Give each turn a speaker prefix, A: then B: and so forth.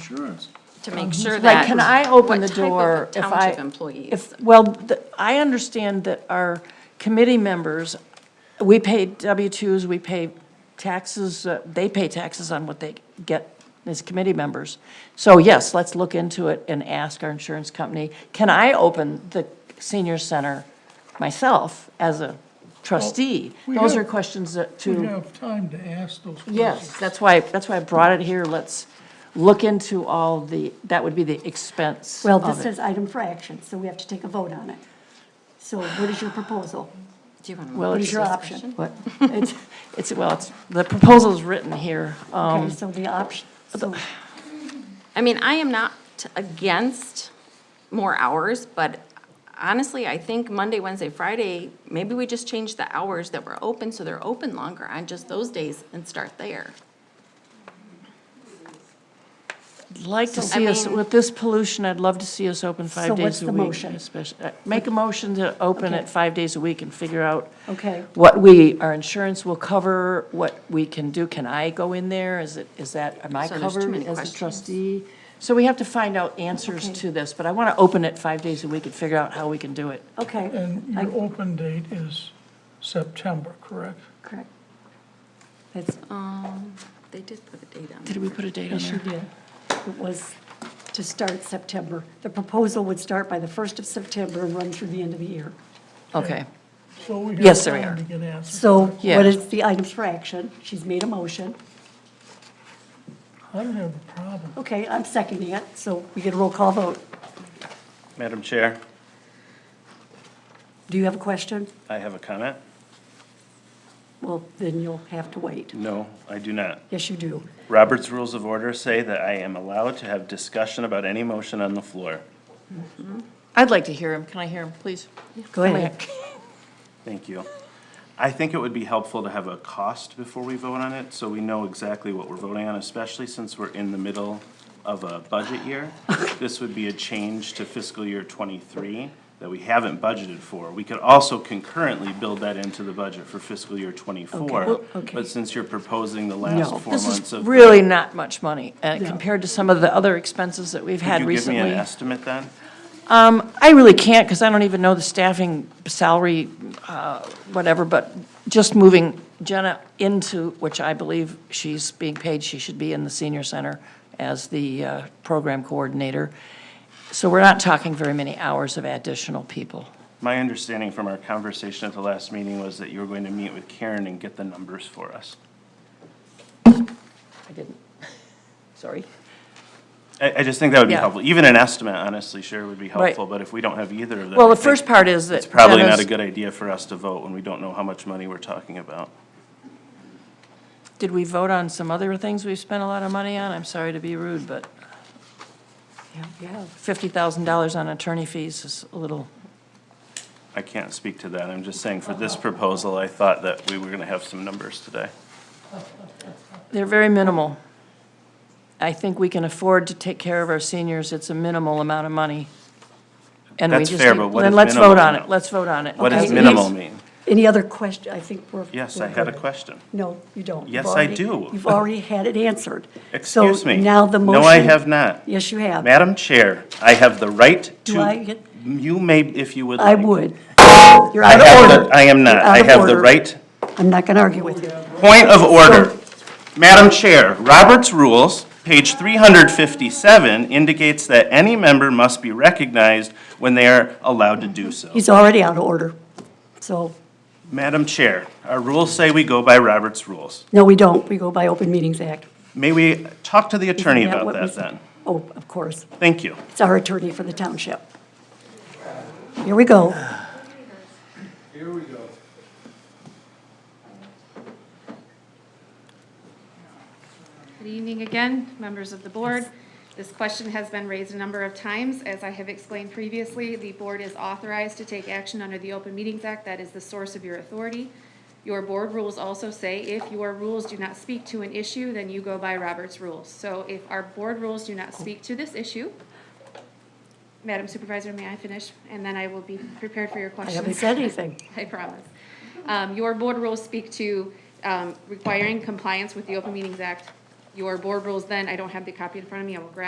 A: insurance.
B: to
C: Um,
B: make sure that.
D: Like, Oh, can I open the
B: what type of
D: door if I?
B: Township employees.
D: if- Well, the- I understand that our committee members, we pay W-2s, we pay taxes, uh, they pay taxes on what they get as committee members. So yes, let's look into it and ask our insurance company, can I open the senior center myself as a trustee?
A: we
D: Those
A: have-
D: are questions that
C: We
D: to,
C: have time to ask those questions.
D: yes, that's why, that's why I brought it here. Let's look into all the, that would be the expense
E: Well,
D: of
E: this
D: it.
E: is item for action, so we have to take a vote on it. So what is your proposal?
B: Do you want
D: Well,
B: to?
E: What
D: it's
E: is your
D: just-
E: option?
D: What? It's, it's, well, it's, the proposal's written here. Um,
E: Okay, so the option, so
B: I mean, I am not against more hours, but honestly, I think Monday, Wednesday, Friday, maybe we just change the hours that we're open, so they're open longer on just those days and start there.
D: Like to
B: So, I
D: see us,
B: mean-
D: with this pollution, I'd love to see us open
E: So
D: five
E: what's
D: days a
E: the
D: week.
E: motion?
D: especially- uh, Make a motion to open
E: Okay.
D: it five days a week and figure out
E: Okay.
D: what we, our insurance will cover, what we can do. Can I go in there? Is it, is that, am I
B: So there's too
D: covered
B: many
D: as a
B: questions.
D: trustee? So we have to find out answers
E: Okay.
D: to this, but I want to open it five days a week and figure out how we can do it.
E: okay,
C: And your open date is September, correct?
E: correct.
B: It's, um, they did put a date on it.
D: Did we put a date on
E: Yes, you
D: there?
E: did. It was to start September. The proposal would start by the 1st of September and run through the end of the year.
D: Okay.
C: So we have
D: Yes, there we
C: time
D: are.
C: to get answers.
E: So
D: Yeah.
E: what is the items for action? She's made a motion.
C: I don't have a problem.
E: Okay, I'm seconding it, so we get a roll call vote.
F: Madam Chair,
E: Do you have a question?
F: I have a comment.
E: Well, then you'll have to wait.
F: No, I do not.
E: Yes, you do.
F: Robert's Rules of Order say that I am allowed to have discussion about any motion on the floor.
D: I'd like to hear him. Can I hear him, please?
E: Go ahead.
F: Thank you. I think it would be helpful to have a cost before we vote on it, so we know exactly what we're voting on, especially since we're in the middle of a budget year. This would be a change to fiscal year twenty-three that we haven't budgeted for. We could also concurrently build that into the budget for fiscal year twenty-four.
E: okay.
F: But since you're proposing the last
D: No,
F: four
D: this
F: months
D: is
F: of.
D: really not much money uh, compared to some of the other expenses that we've had
F: Could you give me an
D: recently.
F: estimate then?
D: I really can't, because I don't even know the staffing salary, uh, whatever, but just moving Jenna into, which I believe she's being paid, she should be in the senior center as the uh, program coordinator. So we're not talking very many hours of additional people.
F: My understanding from our conversation at the last meeting was that you were going to meet with Karen and get the numbers for us.
D: I didn't, sorry.
F: I, I just think that would be
D: Yeah.
F: helpful. Even an estimate, honestly, sure, would be
D: Right.
F: helpful, but if we don't have either of them.
D: Well,
F: I
D: the first
F: think
D: part is that
F: It's probably not
D: Jenna's-
F: a good idea for us to vote when we don't know how much money we're talking about.
D: Did we vote on some other things we've spent a lot of money on? I'm sorry to be rude, but
E: Yeah.
D: $50,000 on attorney fees is a little,
F: I can't speak to that. I'm just saying for this proposal, I thought that we were gonna have some numbers today.
D: they're very minimal. I think we can afford to take care of our seniors. It's a minimal amount of money. And we
F: That's
D: just
F: fair,
D: need-
F: but what
D: then
F: is
D: let's
F: minimal
D: vote on it.
F: now?
D: Let's vote on it.
F: What
D: okay?
F: does
E: Okay.
F: minimal mean?
E: Any other question? I think we're.
F: Yes,
E: we're
F: I had a
E: good.
F: question.
E: No, you don't. You've
F: Yes, I
E: already-
F: do.
E: You've already had it answered.
F: Excuse me.
E: So now the motion.
F: No, I have not.
E: Yes, you have.
F: Madam Chair, I have the right
E: Do
F: to,
E: I get-
F: you may, if you would
E: I
F: like.
E: would. You're
F: I
E: out
F: have
E: of
F: the-
E: order.
F: I am not.
E: You're out
F: I
E: of
F: have the
E: order.
F: right.
E: I'm not going to argue with you.
F: Point of order. Madam Chair, Robert's Rules, page 357, indicates that any member must be recognized when they are allowed to do so.
E: He's already out of order. So,
F: Madam Chair, our rules say we go by Robert's Rules.
E: no, we don't. We go by Open Meetings Act.
F: May we talk to the
E: Isn't
F: attorney
E: what
F: about
E: we
F: that
E: said?
F: then?
E: Oh, of course.
F: Thank you.
E: It's our attorney for the township. Here we go.
G: Here we go.
H: Good evening again, members of the board. This question has been raised a number of times. As I have explained previously, the board is authorized to take action under the Open Meetings Act. That is the source of your authority. Your board rules also say if your rules do not speak to an issue, then you go by Robert's rules. So if our board rules do not speak to this issue, Madam Supervisor, may I finish? And then I will be prepared for your
E: I
H: questions.
E: haven't said anything.
H: I promise. Um, Your board rules speak to um, requiring compliance with the Open Meetings Act. Your board rules then, I don't have the copy in front of me, I will grab